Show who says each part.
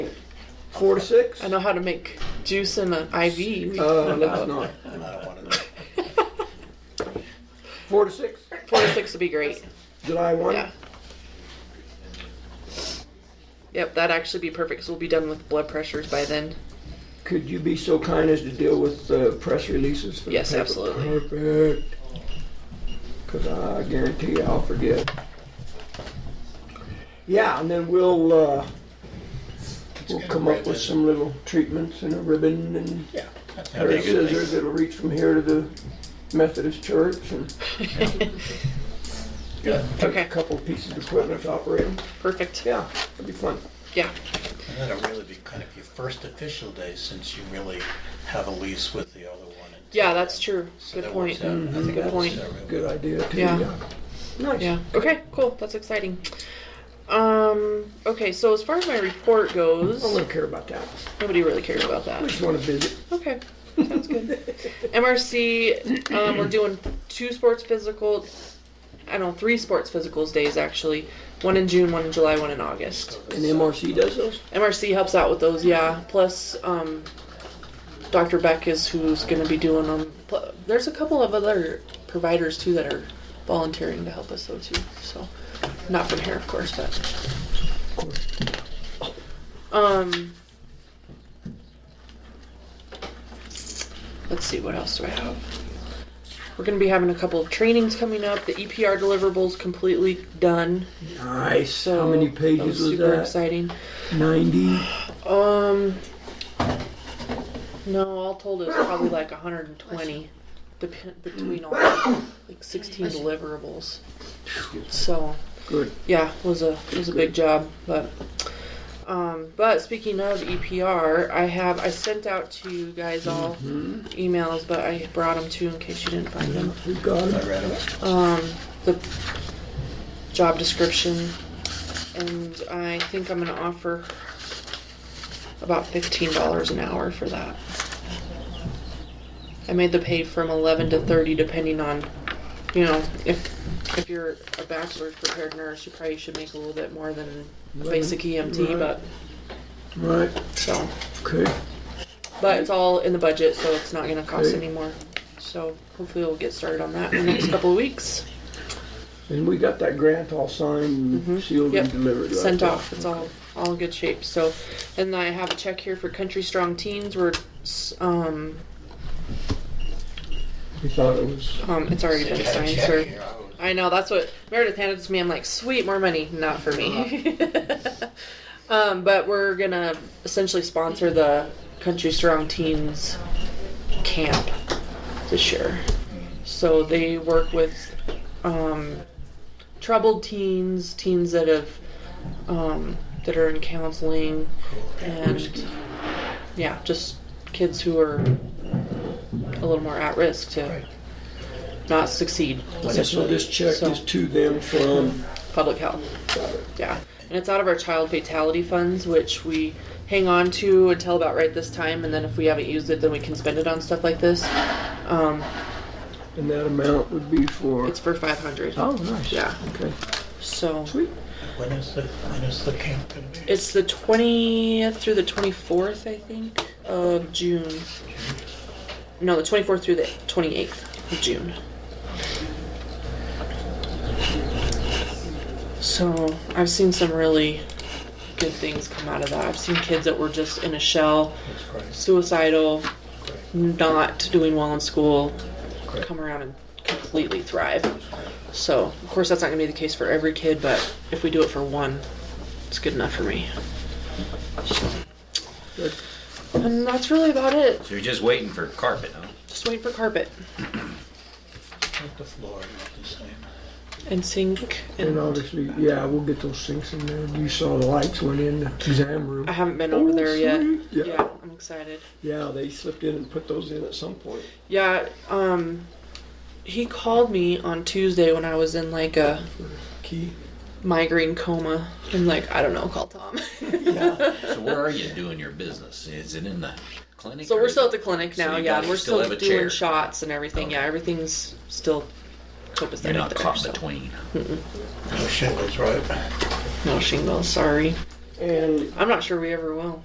Speaker 1: Four to six?
Speaker 2: I know how to make juice in an IV. We
Speaker 1: Uh,
Speaker 3: Oh,
Speaker 2: found
Speaker 1: let's
Speaker 2: out.
Speaker 1: not.
Speaker 3: I don't want to know.
Speaker 1: Four to six?
Speaker 2: Four to six would be great.
Speaker 1: July one?
Speaker 2: Yeah. Yep, that'd actually be perfect because we'll be done with blood pressures by then.
Speaker 1: Could you be so kind as to deal with the press releases for the
Speaker 2: Yes,
Speaker 1: paper?
Speaker 2: absolutely.
Speaker 1: Perfect. Because I guarantee you I'll forget. Yeah, and then we'll, uh, we'll
Speaker 3: good
Speaker 1: come up with some little treatments and a ribbon and
Speaker 3: Yeah. that's
Speaker 1: pair of
Speaker 3: good.
Speaker 1: scissors that'll reach from here to the Methodist church and take a
Speaker 2: Okay,
Speaker 1: couple pieces of equipment to operate them.
Speaker 2: perfect.
Speaker 1: Yeah, that'd be fun.
Speaker 2: Yeah,
Speaker 3: And that'll really be kind of your first official day since you really have a lease with the other one. in
Speaker 2: yeah,
Speaker 3: town.
Speaker 2: that's true.
Speaker 3: So
Speaker 2: Good
Speaker 3: that works
Speaker 2: point.
Speaker 3: out. I think
Speaker 2: Good
Speaker 3: that works
Speaker 2: point.
Speaker 3: out really
Speaker 1: Good
Speaker 3: well.
Speaker 1: idea too,
Speaker 2: Yeah.
Speaker 1: yeah. Nice.
Speaker 2: Yeah. Okay. Cool. That's exciting. Um. Okay. So as far as my report
Speaker 3: Oh,
Speaker 2: goes,
Speaker 1: I don't care about that.
Speaker 2: nobody really cares about
Speaker 1: We
Speaker 2: that.
Speaker 1: just want to visit.
Speaker 2: Okay. Sounds good. MRC. Um, we're doing two sports physical. I don't know, three sports physicals days actually. One in June, one in July, one in August.
Speaker 1: And MRC does those?
Speaker 2: MRC helps out with those, yeah. Plus, um, Dr. Beck is who's going to be doing them. Pl- There's a couple of other providers too that are volunteering to help us though too. So, not from here, of course, but. Um. Let's see, what else do I have? We're going to be having a couple of trainings coming up. The EPR deliverables completely done.
Speaker 1: Nice.
Speaker 2: So
Speaker 1: How many
Speaker 2: that
Speaker 1: pages was
Speaker 2: super
Speaker 1: that?
Speaker 2: exciting.
Speaker 1: 90.
Speaker 2: Um, no, all told, it was probably like 120 dep- between all like 16 deliverables. So
Speaker 1: Good.
Speaker 2: yeah, it was a it was a big job, but. Um, but speaking of EPR, I have I sent out to you guys all emails, but I brought them too in case you didn't find them
Speaker 1: We got
Speaker 3: I
Speaker 1: it.
Speaker 3: read it.
Speaker 2: um, the job description, and I think I'm gonna offer about fifteen dollars an hour for that. I made the pay from eleven to thirty, depending on, you know, if if you're a bachelor's prepared nurse, you probably should make a little bit more than a basic EMT,
Speaker 1: Right.
Speaker 2: but
Speaker 1: Right.
Speaker 2: so,
Speaker 1: Okay.
Speaker 2: but it's all in the budget, so it's not gonna cost
Speaker 1: Okay.
Speaker 2: any more. So hopefully we'll get started on that in the next couple of weeks.
Speaker 1: And we got that grant all signed, sealed,
Speaker 2: Mm-hmm. Yep.
Speaker 1: and delivered. right?
Speaker 2: sent off. It's all all in good shape. So, and I have a check here for Country Strong Teens. We're s- um
Speaker 1: We thought it was.
Speaker 2: um it's already been
Speaker 3: Had a
Speaker 2: signed,
Speaker 3: check
Speaker 2: sir.
Speaker 3: here, I was-
Speaker 2: I know that's what Meredith handed it to me. I'm like, sweet, more money, not for me. um, but we're gonna essentially sponsor the Country Strong Teens camp this year. So they work with um, troubled teens, teens that have um, that are in counseling, and yeah, just kids who are a little more at risk to
Speaker 3: Right.
Speaker 2: not succeed.
Speaker 1: So
Speaker 2: essentially.
Speaker 1: this check
Speaker 2: So-
Speaker 1: is to them from.
Speaker 2: public health.
Speaker 1: Got it.
Speaker 2: Yeah. And it's out of our child fatality funds, which we hang on to until about right this time. And then if we haven't used it, then we can spend it on stuff like this. Um,
Speaker 1: And that amount would be for.
Speaker 2: it's for 500.
Speaker 1: oh, nice.
Speaker 2: Yeah.
Speaker 1: Okay.
Speaker 2: So
Speaker 1: Sweet.
Speaker 3: When is the, when is the camp gonna be?
Speaker 2: it's the 20th through the 24th, I think, of June. No, the 24th through the 28th of June. So I've seen some really good things come out of that. I've seen kids that were just in a shell
Speaker 3: That's great,
Speaker 2: suicidal,
Speaker 3: great.
Speaker 2: not doing well in school,
Speaker 3: Correct.
Speaker 2: come around and completely thrive. So, of course, that's not going to be the case for every kid, but if we do it for one, it's good enough for me. So,
Speaker 1: Good.
Speaker 2: and that's really about it.
Speaker 4: So you're just waiting for carpet, huh?
Speaker 2: Just wait for carpet
Speaker 3: Not the floor, not the same.
Speaker 2: and sink.
Speaker 1: And
Speaker 2: And
Speaker 1: obviously, yeah, we'll get those sinks in there. You saw the lights went in the exam room.
Speaker 2: I haven't been over
Speaker 1: Oh,
Speaker 2: there yet.
Speaker 1: sweet. Yeah.
Speaker 2: yeah, I'm excited.
Speaker 1: Yeah, they slipped in and put those in at some point.
Speaker 2: Yeah, um, he called me on Tuesday when I was in like a
Speaker 1: Key.
Speaker 2: migraine coma. I'm like, I don't know, call Tom.
Speaker 4: So where are you doing your business? Is it in the clinic?
Speaker 2: So
Speaker 4: or
Speaker 2: we're
Speaker 4: is
Speaker 2: still at
Speaker 4: it-
Speaker 2: the clinic
Speaker 4: so
Speaker 2: now,
Speaker 4: you
Speaker 2: yeah.
Speaker 4: guys
Speaker 2: We're
Speaker 4: still
Speaker 2: still,
Speaker 4: have a
Speaker 2: doing
Speaker 4: chair. Oh.
Speaker 2: shots and everything. Yeah, everything's still copacetic
Speaker 4: You're not
Speaker 2: there.
Speaker 4: caught
Speaker 2: so.
Speaker 4: between.
Speaker 3: No shingles, right?
Speaker 2: No shingles, sorry.
Speaker 1: And
Speaker 2: I'm not sure we ever will.